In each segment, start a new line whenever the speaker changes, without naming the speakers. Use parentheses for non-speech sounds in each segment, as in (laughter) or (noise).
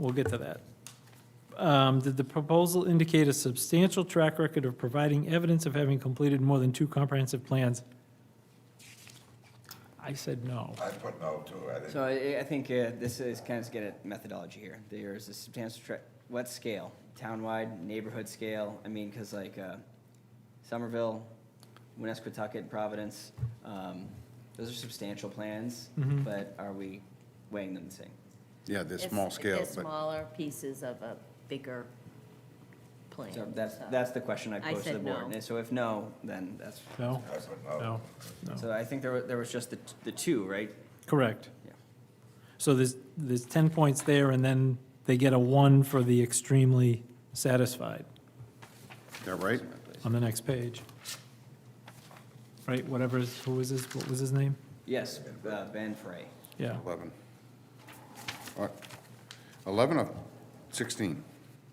We'll get to that. Um, Did the proposal indicate a substantial track record of providing evidence of having completed more than two comprehensive plans? I said no.
I put no to it.
So I, I think uh, this is kind of get at methodology here. There is a substantial, tra- what scale? Townwide, neighborhood scale? I mean, because like uh, Somerville, Winnesquatucket, Providence, um, those are substantial plans, but are we weighing them the same?
Yeah, they're
It's-
small scale,
They're
but
smaller pieces of a bigger plan.
So that's,
so.
that's the question I
I
posed to the
said
board.
no.
And so if no, then that's,
No,
I put no.
no, no.
so I think there, wa- there was just the, t- the two, right?
Correct.
Yeah.
So there's, there's 10 points there, and then they get a one for the extremely satisfied
Is that right?
on the next page. Right, whatever, is- who was his, what was his name?
Yes, uh, Ben Frey.
Yeah,
11. Uh, 11 of 16,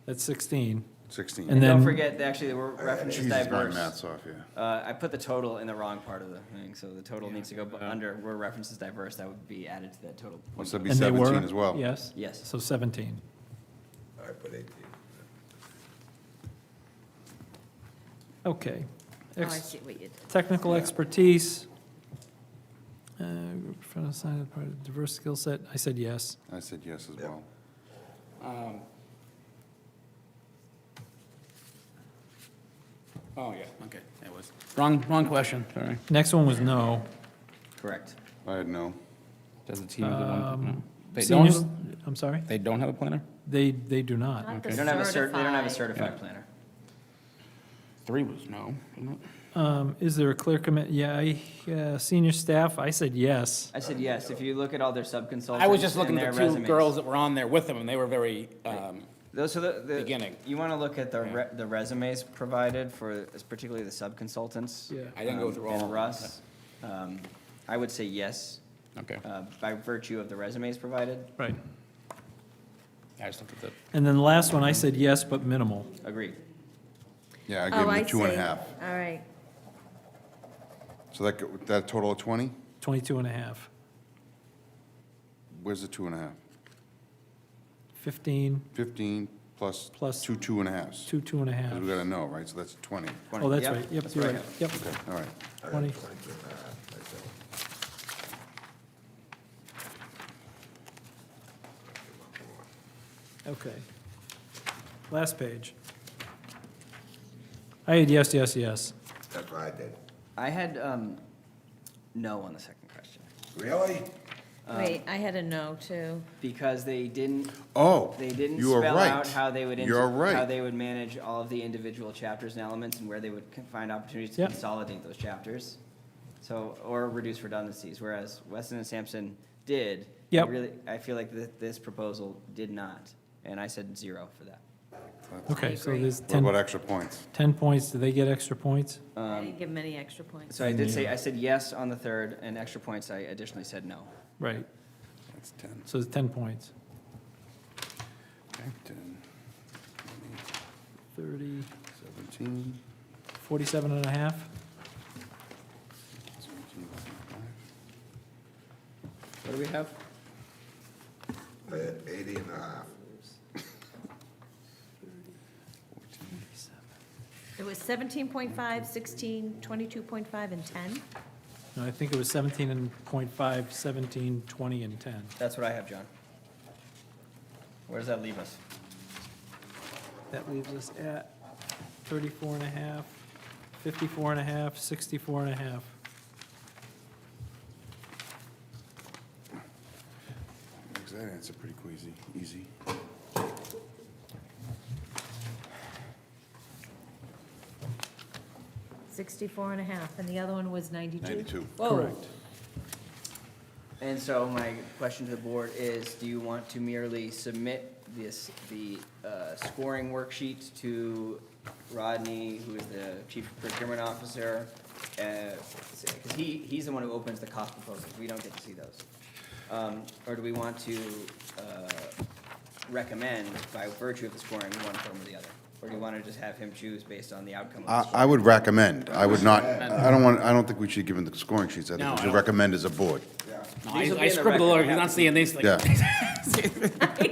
that's 16.
16.
And
And don't
then-
forget, actually, we're references
Jesus, my
diverse.
math's off, yeah.
Uh, I put the total in the wrong part of the thing, so the total needs to go bu- under where references diverse, that would be added to that total.
Must that be
And they were
17 as well?
Yes?
Yes.
So 17.
I put 18.
Okay.
Oh, I
Ex-
see what you did.
Technical expertise. uh, Front of sign of part of diverse skill set. I said yes.
I said yes as well.
Um, Oh, yeah, okay, that was, wrong, wrong question, sorry.
Next one was no.
Correct.
I had no.
Does the team have one?
Um,
no. They don't,
Seniors,
have-
I'm sorry?
they don't have a planner?
They, they do not.
Not the
They don't have a cert, they don't have a
certified.
certified
Yeah.
planner.
Three was no, wasn't it?
Um, Is there a clear commit, yeah, I, uh, senior staff, I said yes.
I said yes, if you look at all their sub-consultants
I was just looking
and their
at the two
resumes.
girls that were on there with them, and they were very, um,
Those are the, the,
Beginning.
you wanna look at the re- the resumes provided for, particularly the sub-consultants.
Yeah.
I didn't go
um,
through all of
And
them.
Russ, um, I would say yes,
okay,
uh, by virtue of the resumes provided,
Right.
I just looked at the,
And then the last one, I said yes, but minimal.
agreed.
Yeah, I
Oh,
gave him
I
the two and a
see.
half.
All right.
So that, go- that total of 20?
22 and a half.
Where's the two and a half?
15,
15 plus?
Plus-
Two two and a halves.
two, two and a half.
Because we got a no, right? So that's 20.
Oh, that's
Yep,
right. Yep,
that's
you're
right.
right. Yep,
Okay, all right.
20. Okay. Last page. I had yes, yes, yes.
That's what I did.
I had, um, no on the second question,
Really?
Uh,
Wait, I had a no too.
because they didn't
Oh,
They didn't
you are
spell out
right.
how they would, ins-
You're
how
right.
they would manage all of the individual chapters and elements and where they would con- find opportunities to
Yep.
consolidate those chapters. So, or reduce redundancies, whereas Weston and Sampson did. I
Yep.
Really, I feel like that this proposal did not, and I said zero for that.
Okay, so there's
What
10,
about extra points?
10 points. Do they get extra points?
I didn't give him any extra points.
um, So I did say, I said yes on the third, and extra points, I additionally said no.
Right,
That's 10.
so it's 10 points.
Okay, 10,
30,
17,
47 and a half?
17, 25.
What do we have?
I had Eighty and a half.
It was 17.5, 16, 22.5, and 10.
No, I think it was 17 and .5, 17, 20, and 10.
That's what I have, John. Where does that leave us?
That leaves us at 34 and a half, 54 and a half, 64 and a half.
Makes that answer pretty queasy, easy.
Sixty-four and a half, and the other one was 92?
92.
Whoa. (laughs)
And so my question to the board is, do you want to merely submit this, the uh, scoring worksheet to Rodney, who is the chief procurement officer? Uh, Because he, he's the one who opens the cost proposals, we don't get to see those. Um, Or do we want to uh, recommend by virtue of the scoring, one form or the other? Or do you want to just have him choose based on the outcome of the
I,
scoring?
I would recommend, I would not, I don't want, I don't think we should give him the scoring sheets. I think
No,
we
I
should
don't.
recommend as a board.
These will
no, I
be
I
in the
scribbled a
record.
little, you're not seeing these, like,
Yeah.